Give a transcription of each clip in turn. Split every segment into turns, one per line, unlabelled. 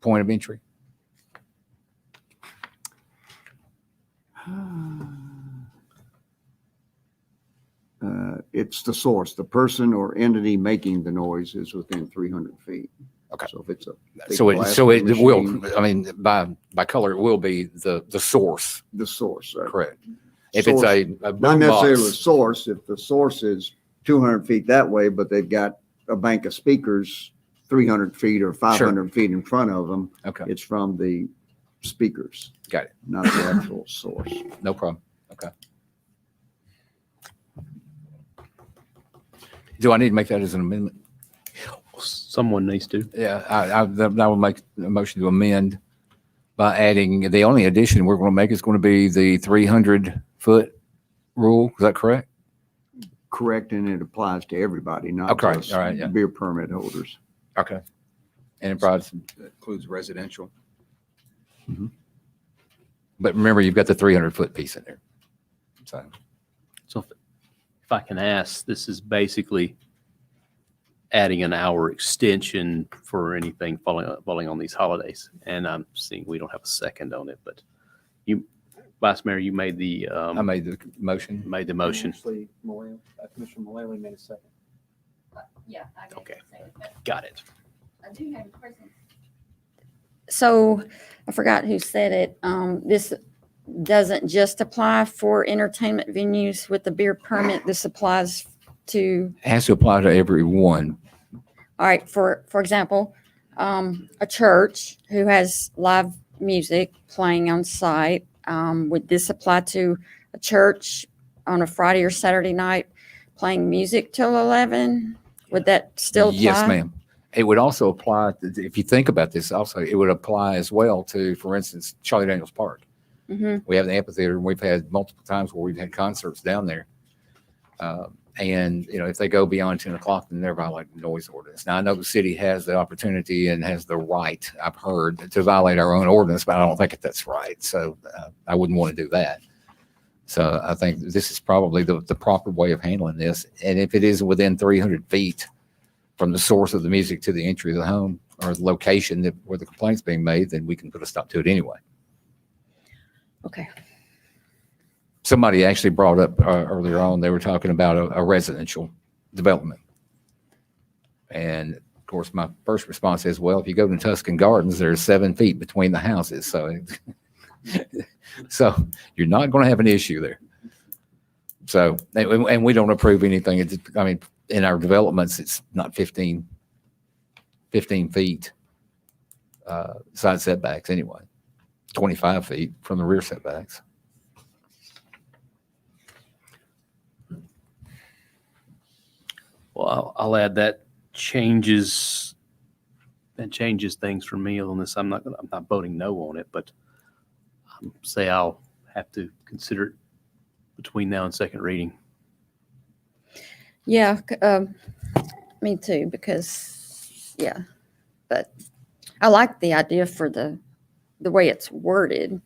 point of entry?
Ah. Uh, It's the source, the person or entity making the noise is within 300 feet.
Okay.
So if it's a, Big
So it,
blast
so it will,
machine.
I mean, by, by color, it will be the, the source,
the source. uh,
correct? If it's
source-
a. a
Not necessarily the
box,
source, if the source is 200 feet that way, but they've got a bank of speakers 300 feet or 500 feet in front of them,
Okay,
it's from the speakers.
Got it.
Not the actual source.
no problem. Okay. Do I need to make that as an amendment?
Someone needs to.
Yeah, I, I, that- I will make a motion to amend by adding, the only addition we're going to make is going to be the 300 foot rule. Is that correct?
Correct, and it applies to everybody, not
Okay,
just
all right, yeah.
beer permit holders.
Okay. And it provides,
includes residential.
but remember, you've got the 300 foot piece in there. So,
So if if I can ask, this is basically adding an hour extension for anything falling, falling on these holidays. And I'm seeing we don't have a second on it, but you, Vice Mayor, you made the,
I
um,
made the motion.
made the motion.
Actually, Malala- uh, Commissioner Mullally made a second.
Yeah, I got
Okay.
it. Say, but
Got it.
I do have a question. So I forgot who said it. Um, this doesn't just apply for entertainment venues with the beer permit. This applies to,
It Has to apply to everyone.
all right, for, for example, um, a church who has live music playing on site. Um, would this apply to a church on a Friday or Saturday night playing music till 11? Would that still apply?
Yes, ma'am. It would also apply, to- if you think about this also, it would apply as well to, for instance, Charlie Daniels Park.
hmm
We have the amphitheater, and we've had multiple times where we've had concerts down there. Uh, And, you know, if they go beyond ten o'clock, then they're violating the noise ordinance. Now, I know the city has the opportunity and has the right, I've heard, to violate our own ordinance, but I don't think that that's right. So uh, I wouldn't want to do that. So I think this is probably the, the proper way of handling this. And if it is within three hundred feet from the source of the music to the entry of the home or the location that, where the complaint's being made, then we can put a stop to it anyway.
Okay.
somebody actually brought up uh, earlier on, they were talking about a, a residential development. And of course, my first response is, well, if you go to Tuscan Gardens, there's seven feet between the houses, so. it- So you're not going to have an issue there. So, and, and we don't approve anything. It's, I mean, in our developments, it's not 15, 15 feet uh, side setbacks anyway, 25 feet from the rear setbacks.
Well, I'll, I'll add that changes, that changes things for me on this. I'm not, gonna- I'm not voting no on it, but um, say I'll have to consider it between now and second reading.
Yeah, c- um, me too, because, yeah, but I like the idea for the, the way it's worded.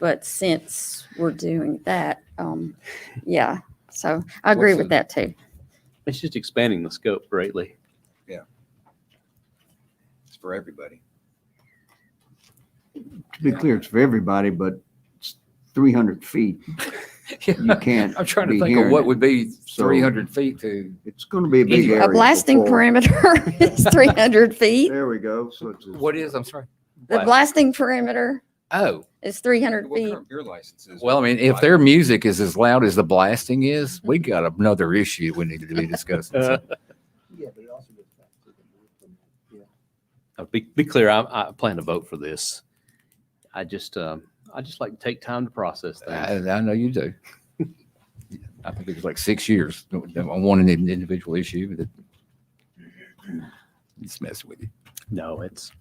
But since we're doing that, um, yeah, so I agree with that too.
It's just expanding the scope greatly.
It's for everybody.
To be clear, it's for everybody, but it's 300 feet. You can't.
I'm trying to
be
think of
hearing
what
it.
would be
So-
three hundred feet to,
It's going to be a big
Anyway.
area.
A blasting
before-
perimeter is three hundred feet.
There we go. So it's.
what is, I'm sorry?
The blasting perimeter
Oh,
is three hundred
What
feet.
current beer licenses?
well, I mean, if their music is as loud as the blasting is, we
Mhm.
got another issue we need to be discussing. So,
Yeah, but it also goes back to the word
Uh,
from-
Be, be clear, I, I plan to vote for this. I just, um, I just like to take time to process
I,
things.
I know you do. I think it was like six years on one in- individual issue, but it- it's messing with you.
No, it's.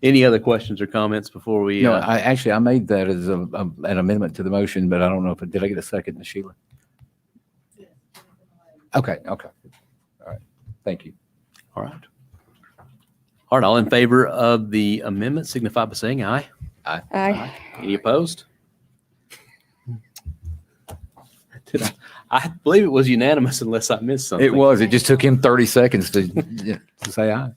Any other questions or comments before we?
No,
uh,
I, actually, I made that as a, a- an amendment to the motion, but I don't know if, it did I get a second, Ms. Sheila? Okay, okay. All right. Thank you.
All right. All right, all in favor of the amendment signify by saying aye.
I,
Any opposed? Did I, I believe it was unanimous unless I missed something.
It was. It just took him 30 seconds to, to say aye.